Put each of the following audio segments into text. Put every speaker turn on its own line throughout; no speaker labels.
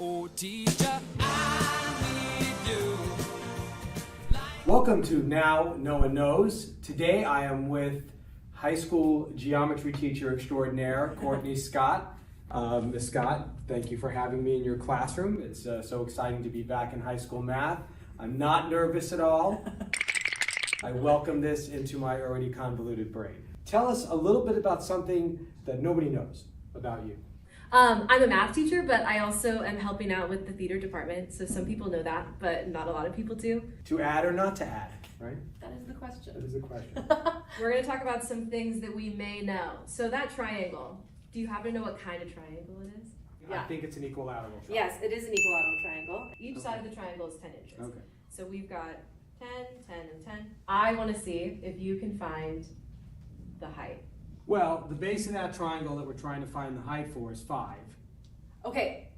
Oh,
Welcome to Now No One Knows. Today I am with high school geometry teacher extraordinaire Courtney Scott. Um, Ms. Scott, thank you for having me in your classroom. It's uh, so exciting to be back in high school math. I'm not nervous at all. I welcome this into my already convoluted brain. Tell us a little bit about something that nobody knows about you.
Um, I'm a math teacher, but I also am helping out with the theater department. So some people know that, but not a lot of people do.
To add or not to add, right?
That is the question.
That is the question.
We're going to talk about some things that we may know. So that triangle. Do you happen to know what kind of triangle it is?
I
Yeah.
think it's an equilateral. shot.
Yes, it is an equilateral triangle.
Each
Okay.
side of the triangle is 10 inches.
Okay.
So we've got 10, 10, and 10. I want to see if you can find the height.
Well, the base of that triangle that we're trying to find the height for is five
Okay,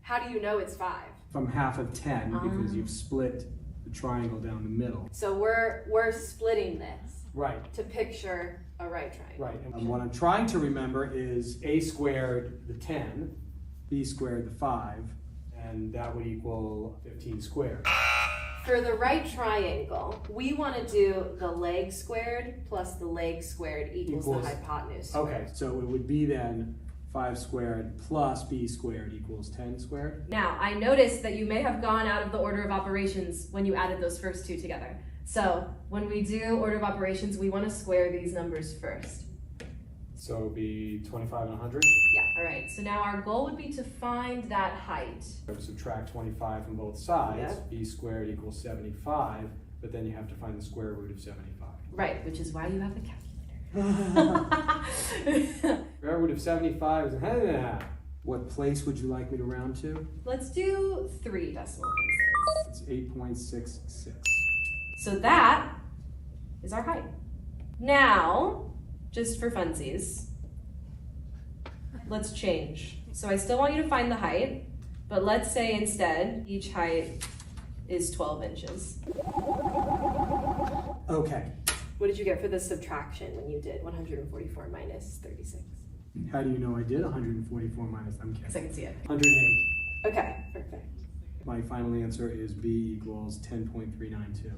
how do you know it's five?
from half of ten because
Ah.
you've split the triangle down the middle.
So we're we're splitting this
Right,
to picture a right triangle.
right. And what I'm trying to remember is a squared the ten, b squared the five, and that would equal fifteen squared.
For the right triangle, we want to do the leg squared plus the leg squared equals,
Equals-
the hypotenuse.
Okay, so it would be then five squared plus b squared equals ten squared.
Now, I noticed that you may have gone out of the order of operations when you added those first two together. So, when we do order of operations, we want to square these numbers first.
So it would be twenty-five and hundred.
All right, so now our goal would be to find that height.
Subtract twenty-five from both sides.
Yeah.
b squared equals seventy-five, but then you have to find the square root of seventy-five.
Right, which is why you have a calculator.
Square root of 75 is. What place would you like me to round to?
Let's do three decimal places.
It's 8.66.
So that is our height. Now, just for funsies, let's change. So I still want you to find the height, but let's say instead each height is 12 inches.
Okay,
What did you get for the subtraction when you did 144 minus 36?
how do you know I did 144 minus? I'm
Because I
kidding.
can see it.
108.
Okay, perfect,
My final answer is B equals 10.392.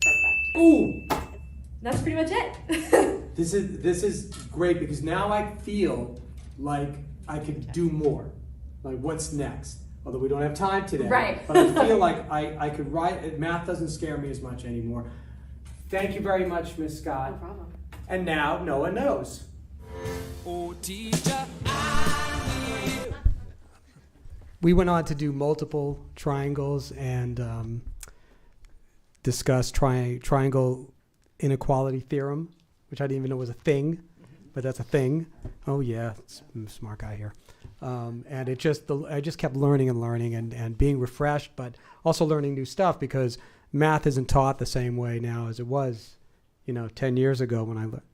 perfect.
Ooh!
That's pretty much it.
This is this is great because now I feel like I could do more. Like what's next? Although we don't have time today.
Right.
But I feel like I, I could write math doesn't scare me as much anymore. Thank you very much, Miss
No
Scott.
problem.
And now Noah knows.
Oh, teacher,
We went on to do multiple triangles and um, discuss tri- triangle inequality theorem, which I didn't even know was a thing, but that's a thing. Oh yeah, s- I'm a smart guy here. Um, and it just the, I just kept learning and learning and, and being refreshed, but also learning new stuff because math isn't taught the same way now as it was, you know, ten years ago when I learned.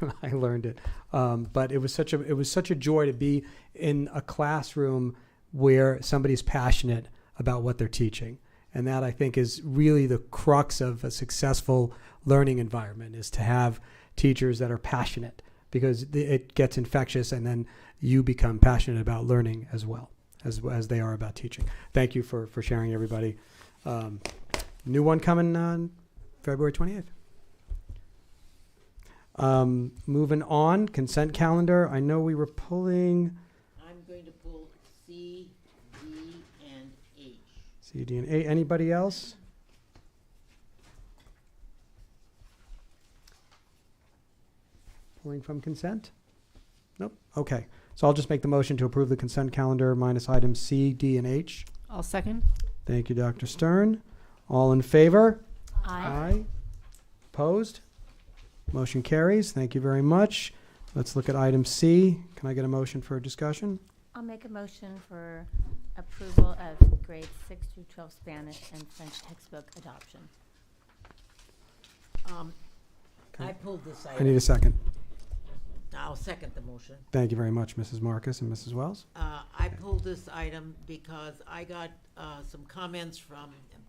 When I learned it, um, but it was such a it was such a joy to be in a classroom where somebody's passionate about what they're teaching and that i think is really the crux of a successful learning environment is to have teachers that are passionate because th- it gets infectious and then you become passionate about learning as well as, as they are about teaching thank you for, for sharing everybody um, new one coming on february 28th um, moving on consent calendar i know we were pulling
I'm going to pull C, D, and H.
C, D, and A. Anybody else? Pulling from consent? Nope. Okay. So I'll just make the motion to approve the consent calendar minus items C, D, and H.
I'll second.
Thank you, Dr. Stern. All in favor?
Aye.
Opposed? Motion carries. Thank you very much. Let's look at item C. Can I get a motion for discussion?
I'll make a motion for approval of grades six through twelve Spanish and French textbook adoption.
Um, I pulled this
I need
item.
a second.
I'll second the motion.
Thank you very much, Mrs. Marcus and Mrs. Wells.
Uh, I pulled this item because I got, uh, some comments from